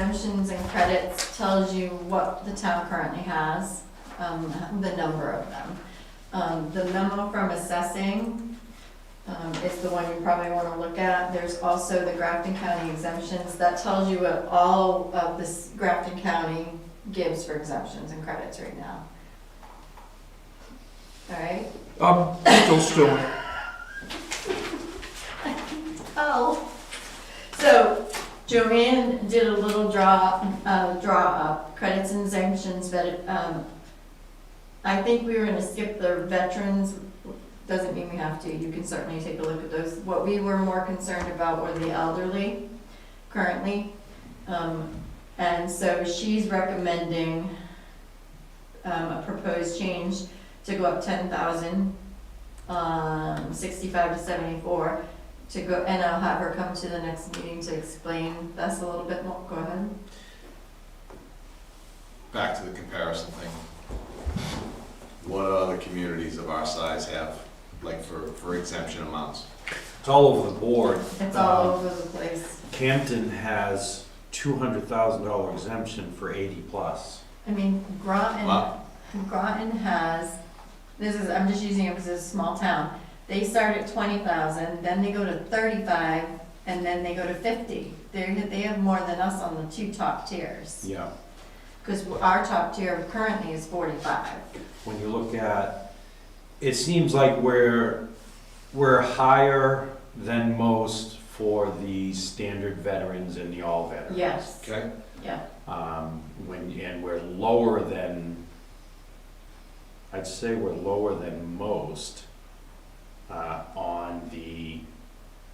exemptions and credits tells you what the town currently has, um, the number of them. Um, the memo from assessing, um, is the one you probably wanna look at. There's also the Grafton County exemptions, that tells you what all of this Grafton County gives for exemptions and credits right now. All right? I'm still stewing. Oh. So Joanne did a little draw, uh, draw up credits and exemptions, but, um, I think we were gonna skip the veterans, doesn't mean we have to, you can certainly take a look at those. What we were more concerned about were the elderly currently. Um, and so she's recommending, um, a proposed change to go up ten thousand, um, sixty-five to seventy-four to go, and I'll have her come to the next meeting to explain this a little bit more, go ahead. back to the comparison thing. What other communities of our size have, like for, for exemption amounts? It's all over the board. It's all over the place. Camden has two hundred thousand dollar exemption for eighty plus. I mean, Groton, Wow. Groton has, this is, I'm just using it because it's a small town. They start at twenty thousand, then they go to thirty-five, and then they go to fifty. They're, they have more than us on the two top tiers, Yeah. because our top tier currently is forty-five. When you look at, it seems like we're, we're higher than most for the standard veterans and the all veterans. Yes, Okay, yeah, Um, when, and we're lower than, I'd say we're lower than most, uh, on the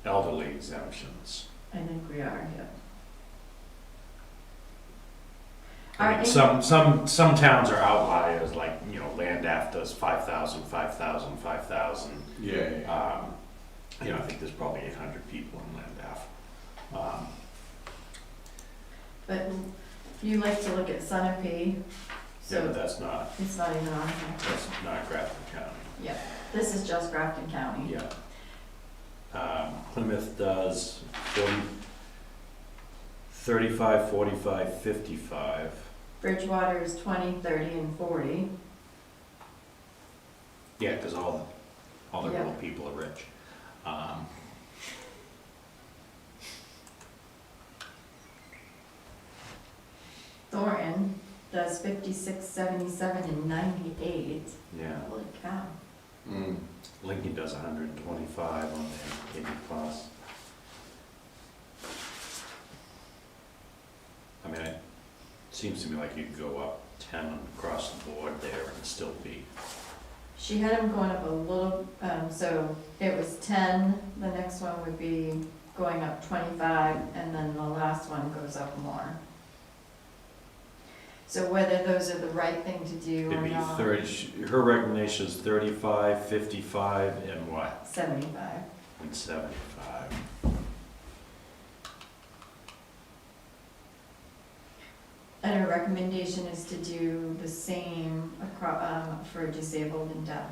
elderly exemptions. I think we are, yeah. I Are mean, any- some, some, some towns are outliers, like, you know, Landaff does five thousand, five thousand, five thousand. yeah, yeah, yeah. Um, you know, I think there's probably eight hundred people in Landaff. Um, But you like to look at Sunapee, yeah, but so that's not, it's not even on here. that's not Grafton County, This is just Grafton County. yeah. Um, Plymouth does forty, thirty-five, forty-five, fifty-five. Bridgewater is twenty, thirty, and forty. Yeah, cause all, all the Yeah. real people are rich. Um, Thornton does fifty-six, seventy-seven, and ninety-eight. yeah. Holy cow. Mm. Lincoln does hundred and twenty-five on their eighty plus. I mean, it seems to me like you could go up ten across the board there and still be, She had them going up a little, um, so it was ten, the next one would be going up twenty-five, and then the last one goes up more. So whether those are the right thing to do it'd or be not. thirty, sh- her recommendation is thirty-five, fifty-five, and what? Seventy-five. And seventy-five. And our recommendation is to do the same across, um, for disabled and deaf.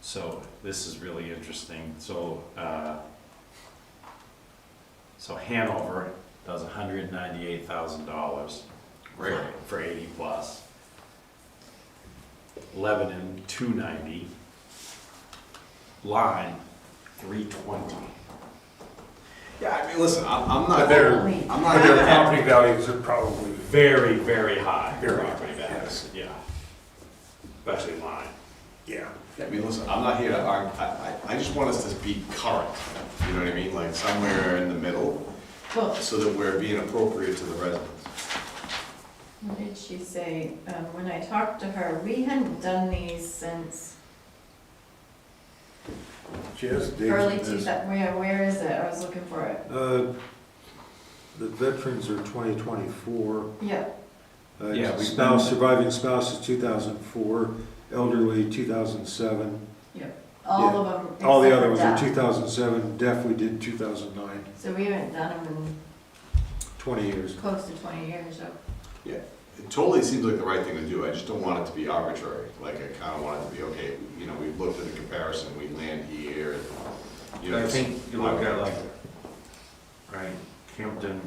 So this is really interesting. So, uh, so Hanover does hundred and ninety-eight thousand dollars. Right. for- For eighty plus. Lebanon, two ninety. Line, three twenty. Yeah, I mean, listen, I'm, I'm not. But they're- Holy I'm But their not. property values are probably, Very, very high Very, property values, yes. yeah. Especially line. yeah. I mean, listen, I'm not here to argue, I, I, I just want us to be current, you know what I mean, like somewhere in the middle, Well, so that we're being appropriate to the residents. what did she say? Um, when I talked to her, we hadn't done these since She has dates early in two this. thousand, where, where is it? I was looking for it. Uh, The veterans are 2024. Yeah, Uh, Yeah, we've Spouse, been- surviving spouse is 2004, elderly 2007. all of them. All the except other for ones are deaf. 2007, deaf we did 2009, So we haven't done them 20 years. in close to twenty years, so. It totally seems like the right thing to do, I just don't want it to be arbitrary, like, I kinda want it to be, okay, you know, we've looked at the comparison, we land here, and, you know. I this- think you look at like, right, Hampton